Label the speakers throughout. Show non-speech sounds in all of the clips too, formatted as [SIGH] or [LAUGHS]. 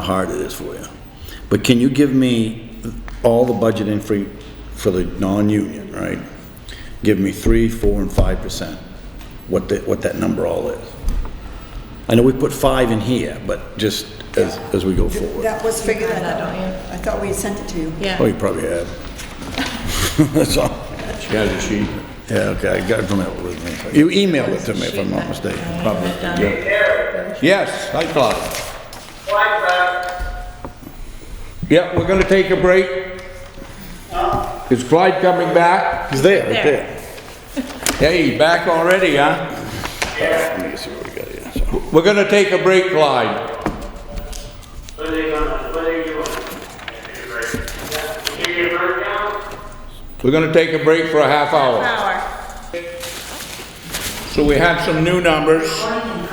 Speaker 1: how hard it is for you. But can you give me all the budget info for the non-union, right? Give me three, four, and five percent, what that, what that number all is. I know we put five in here, but just as, as we go forward.
Speaker 2: That was
Speaker 3: Figure
Speaker 2: figured
Speaker 3: that out,
Speaker 2: out.
Speaker 3: don't you?
Speaker 2: I thought we had sent it to you.
Speaker 3: Yeah.
Speaker 1: Oh, you probably have. [LAUGHS] That's all.
Speaker 4: She has a sheet.
Speaker 1: Yeah, okay, I got it from that. You emailed it to me, if I'm not mistaken.
Speaker 3: mistaken.
Speaker 4: Yes, I thought.
Speaker 5: Why, Brad?
Speaker 4: Yeah, we're gonna take a break. Is Clyde coming back?
Speaker 1: He's there, right
Speaker 3: There.
Speaker 1: there.
Speaker 4: Hey, back already, huh?
Speaker 1: Let me see what we got here. So,
Speaker 4: We're gonna take a break, Clyde.
Speaker 5: What are they gonna, what are they doing? Yeah, You get your bird down?
Speaker 4: We're gonna take a break for a half hour.
Speaker 3: Power.
Speaker 4: So we have some new numbers.
Speaker 5: Okay,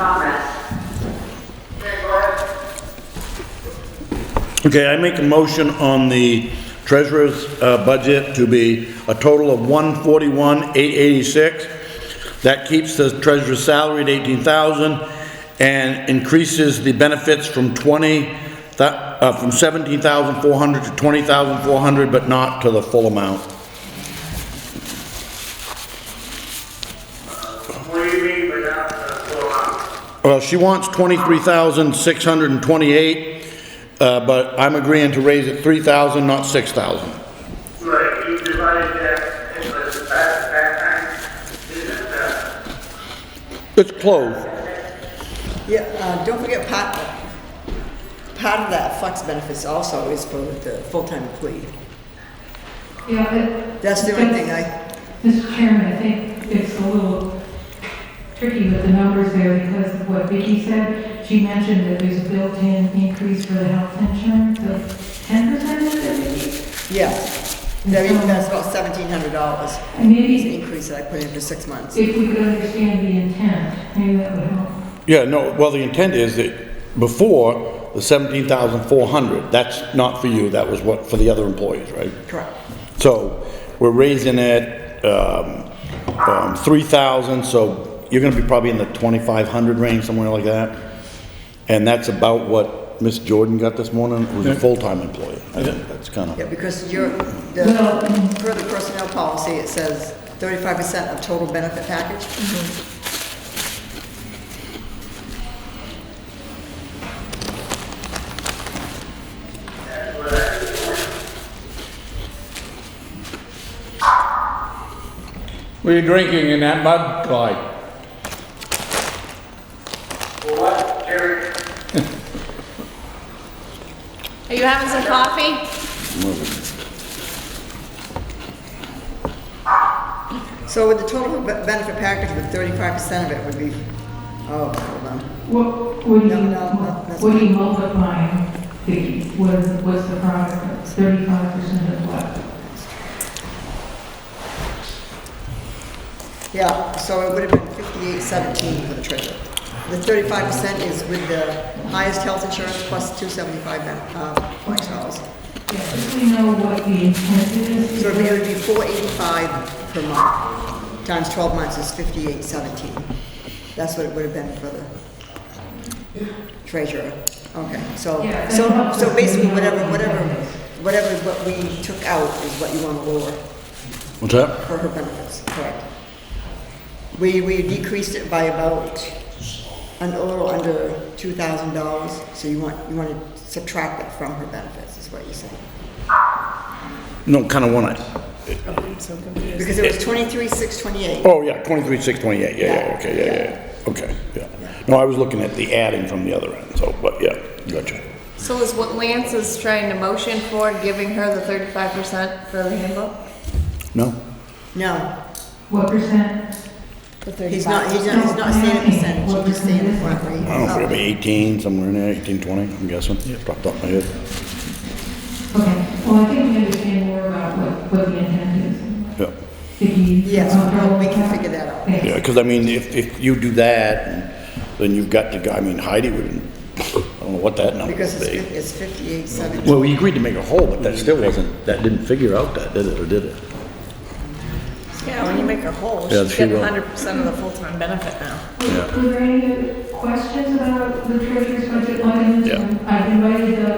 Speaker 5: go ahead.
Speaker 1: Okay, I make a motion on the treasurer's uh, budget to be a total of one forty-one, eight eighty-six. That keeps the treasurer's salary at eighteen thousand and increases the benefits from twenty, thou- uh, from seventeen thousand four hundred to twenty thousand four hundred, but not to the full amount.
Speaker 5: What do you mean by that, uh, go on?
Speaker 1: Well, she wants twenty-three thousand six hundred and twenty-eight, uh, but I'm agreeing to raise it three thousand, not six thousand.
Speaker 5: Right, you divided that, it was back, back time, didn't it, uh?
Speaker 1: It's close.
Speaker 2: Yeah, uh, don't forget, part, part of that flex benefits also is for the full-time employee.
Speaker 6: Yeah, but.
Speaker 2: That's the only thing I-
Speaker 6: Mr. Chairman, I think it's a little tricky with the numbers there because of what Vicky said. She mentioned that there's a built-in increase for the health insurance of ten percent, is it, Vicki?
Speaker 2: Yeah, That- that's about seventeen hundred dollars,
Speaker 6: And maybe
Speaker 2: increase that I put in for six months.
Speaker 6: if we could understand the intent, maybe that would help.
Speaker 1: Yeah, no, well, the intent is that before, the seventeen thousand four hundred, that's not for you, that was what, for the other employees, right?
Speaker 2: Correct.
Speaker 1: So, we're raising it, um, um, three thousand, so you're gonna be probably in the twenty-five hundred range, somewhere like that. And that's about what Miss Jordan got this morning, who's a full-time employee. I think that's kinda,
Speaker 2: Yeah, because your,
Speaker 6: Well- mm-hmm.
Speaker 2: the, per the personnel policy, it says thirty-five percent of total benefit package.
Speaker 4: What are you drinking in that mug, Clyde?
Speaker 5: Well, what, Jerry?
Speaker 3: Are you having some coffee?
Speaker 2: So with the total be- benefit package, with thirty-five percent of it would be, oh, hold on.
Speaker 6: What, what do you,
Speaker 2: No, no, no, that's
Speaker 6: what do you multiply, Vicki? What, what's the product, thirty-five percent of what?
Speaker 2: Yeah, so it would have been fifty-eight seventeen for the treasurer. The thirty-five percent is with the highest health insurance plus two seventy-five, uh, flex dollars.
Speaker 6: Yeah, if we know what the intent is.
Speaker 2: So it would be four eighty-five per month, times twelve months is fifty-eight seventeen. That's what it would have been for the treasurer. Okay, so,
Speaker 6: Yeah, that
Speaker 2: so,
Speaker 6: helps
Speaker 2: so
Speaker 6: us
Speaker 2: basically,
Speaker 6: to know
Speaker 2: whatever,
Speaker 6: what the
Speaker 2: whatever,
Speaker 6: intent is.
Speaker 2: whatever what we took out is what you want to lower
Speaker 1: what's that?
Speaker 2: for her benefits, correct? We, we decreased it by about, un- a little under two thousand dollars, so you want, you want to subtract it from her benefits, is what you're saying.
Speaker 1: No, kinda wanna,
Speaker 2: Because it was twenty-three, six, twenty-eight.
Speaker 1: oh, yeah, twenty-three, six, twenty-eight, yeah, yeah, okay, yeah, yeah, yeah, okay, yeah. No, I was looking at the adding from the other end, so, but yeah, gotcha.
Speaker 3: So is what Lance is trying to motion for, giving her the thirty-five percent for the handbook?
Speaker 1: No?
Speaker 2: No,
Speaker 6: What percent?
Speaker 2: he's not, he's not, he's not saying a percentage, he's just saying a flat
Speaker 1: I don't know,
Speaker 2: rate.
Speaker 1: probably 18, somewhere in there, 18, 20, I'm guessing. Dropped off my head.
Speaker 6: Okay, well, I think we understand more about what, what the intent is.
Speaker 1: Yeah,
Speaker 6: If you.
Speaker 2: Yes, well, we can figure that out.
Speaker 6: Thanks.
Speaker 1: yeah, because I mean, if, if you do that, then you've got to, go- I mean, Heidi wouldn't, I don't know what that number
Speaker 2: Because
Speaker 1: would
Speaker 2: it's,
Speaker 1: be.
Speaker 2: fif- it's fifty-eight, seventeen.
Speaker 1: Well, we agreed to make a whole, but that still wasn't, that didn't figure out that, did it, or did it?
Speaker 3: Yeah, when you make her whole,
Speaker 1: Yeah, she
Speaker 3: she's getting
Speaker 1: will.
Speaker 3: hundred percent of the full-time benefit now.
Speaker 6: Were there any other questions about the treasurer's budget line items.
Speaker 1: Yeah.
Speaker 6: I've invited the